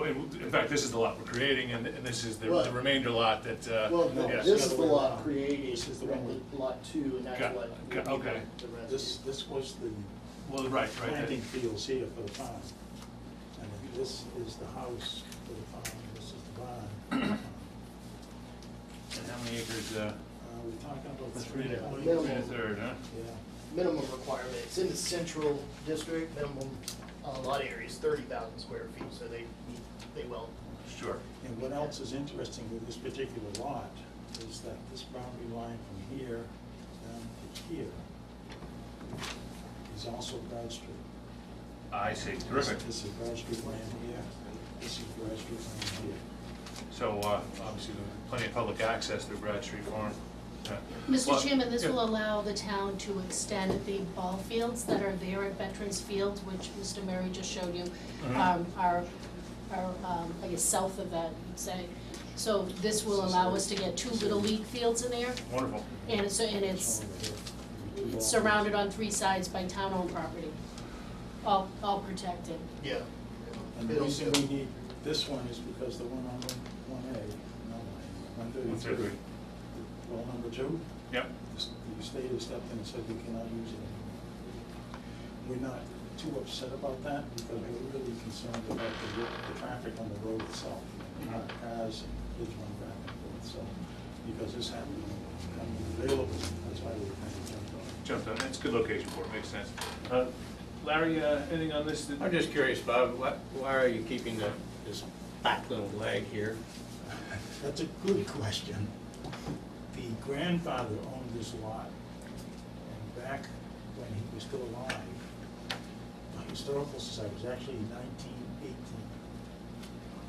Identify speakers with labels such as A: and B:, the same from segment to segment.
A: in fact, this is the lot we're creating, and, and this is the, the
B: Right.
A: remainder lot that, uh,
B: Well, no,
A: yes.
B: this is the
C: way
B: lot
C: around.
B: created, this
C: is
B: is
C: the
B: the
C: one-
B: lot two, and that's
A: Got-
B: what.
A: got-
B: would be
A: okay.
B: the rest.
C: This, this was the
A: Well, right, right.
C: planting fields here for the farm. And then this is the house for the farm, this is the barn. for the farm.
A: And how many acres, uh,
C: Uh, we're talking about
A: three
C: three.
A: and a
C: acres.
A: three and a third, huh?
C: Yeah,
B: Minimum requirement, it's in the central district, minimum uh, lot area is thirty thousand square feet, so they, they will.
A: Sure.
C: and what else is interesting with this particular lot is that this boundary line from here down to here is also Broad Street.
A: I see, terrific.
C: This is Broad Street land here, this is Broad Street land here.
A: So, uh, obviously, there's plenty of public access through Brad Street Farm. Yeah. Well,
D: Mr. Chairman, this
A: yeah.
D: will allow the town to extend the ball fields that are there at Veterans Field, which Mr. Murray just showed you,
A: Mhm.
D: um, are, are, um, I guess, south of that, you'd say. So this will allow us to get two little league fields in there,
A: Wonderful.
D: and it's, and it's
C: Over here.
D: it's surrounded on three sides by town-owned property, all, all protected.
B: Yeah.
C: And the
B: It'll-
C: reason we need this one is because the one on one A, no, one thirty-three,
A: 133.
C: well, number two,
A: Yep,
C: the s- the state has stepped in and said we cannot use it anymore. We're not too upset about that because we're really concerned about the, ro- the traffic on the road itself. Not cars and kids running back and forth, so, because this happened, coming available, that's why we kind of jumped on it.
A: jumped on, that's a good location for it, makes sense. Uh, Larry, uh, anything on this? that-
E: I'm just curious, Bob, why, why are you keeping the, this back little leg here?
C: That's a good question. The grandfather owned this lot, and back when he was still alive, the Historical Society, it was actually nineteen eighteen,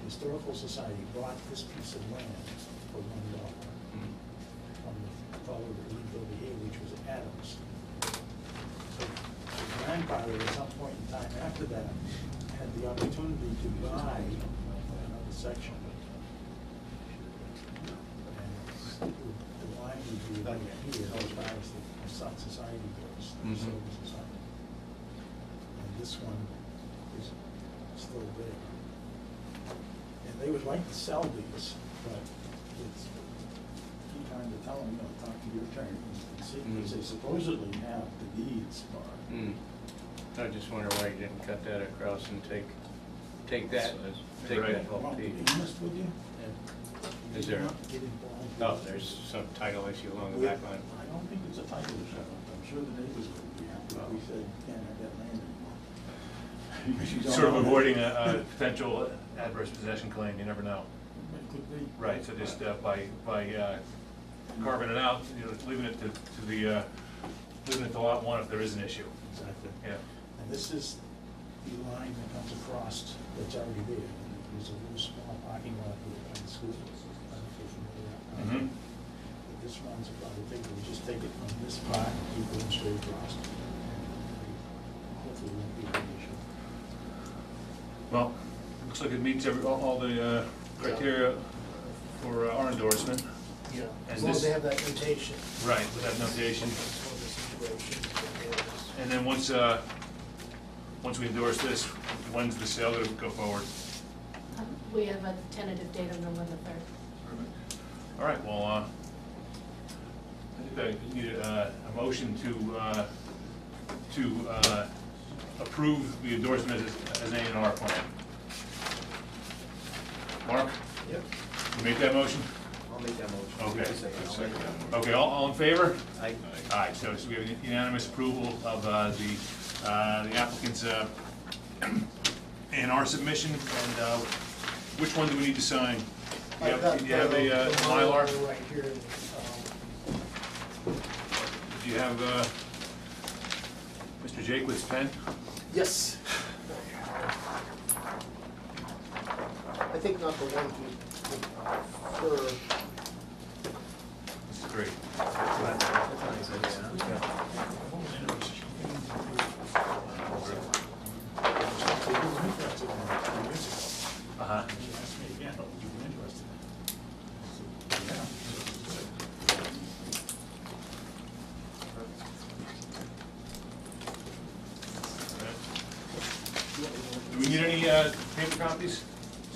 C: the Historical Society bought this piece of land for one dollar
E: Hmm.
C: from the fellow that lived over here, which was Adams. So the grandfather, at some point in time after that, had the opportunity to buy another section. The line would be like here, as far as the so- society goes, the
E: Mhm.
C: civil society. And this one is still there. And they would like to sell these, but it's, keep trying to tell them, you know, talk to your attorney and see, because
E: Mm.
C: they supposedly have the deeds for it.
E: Hmm. I just wonder why you didn't cut that across and take, take that, take that whole
C: Well, to
E: piece.
C: be honest with you, we
E: Is
C: did
E: there-
C: not get involved
E: Oh,
C: with-
E: there's some title issue along the
C: We- I
E: back line.
C: don't think it's a title issue, I'm sure the neighbors would be happy
A: Oh.
C: if we said, can't have that land anymore. Because you don't
A: Sort of
C: own it.
A: avoiding a, a potential adverse possession claim, you never know.
C: It could be.
A: Right, so just uh, by, by uh, carving it out, you know, leaving it to, to the, uh, leaving it to lot one if there is an issue.
C: Exactly.
A: Yeah.
C: And this is the line that comes across that's already there, and there's a little small parking lot here by the school. I don't know if you're familiar.
A: Mhm.
C: But This one's about, I think we'll just take it from this part, and keep going straight across. Hopefully it won't be an issue.
A: Well, looks like it meets every, all all the uh, criteria for uh, our endorsement.
B: Yeah,
A: And
B: as long as
A: this-
B: they have that notation.
A: Right, with that notation.
B: That's one of the situations that there is.
A: And then once, uh, once we endorse this, when's the sale gonna go forward?
D: Um, We have a tentative date of November third.
A: All right, well, uh, I think I need a, a motion to, uh, to uh, approve the endorsement as, as A and R plan. Mark,
F: Yep,
A: you make that motion?
F: I'll make that motion.
A: Okay.
F: I'll make that motion.
A: Okay, all, all in favor?
F: I,
A: All right, so so we have unanimous approval of uh, the, uh, the applicant's uh, and our submission, and uh, which one do we need to sign? You
B: I've got
A: have, you have
B: the-
A: a uh,
B: the
A: Mylar?
B: Right here, um,
A: Do you have uh, Mr. Jakewood's pen?
B: yes. I think not the one who, who- for,
A: This is great.
F: that's nice, yeah.
C: They were interested in it two years ago.
A: Uh-huh.
C: And he asked me again, "Oh, you were interested in it?" I said, "Yeah." So it's good.
A: Do we need any uh, paper copies?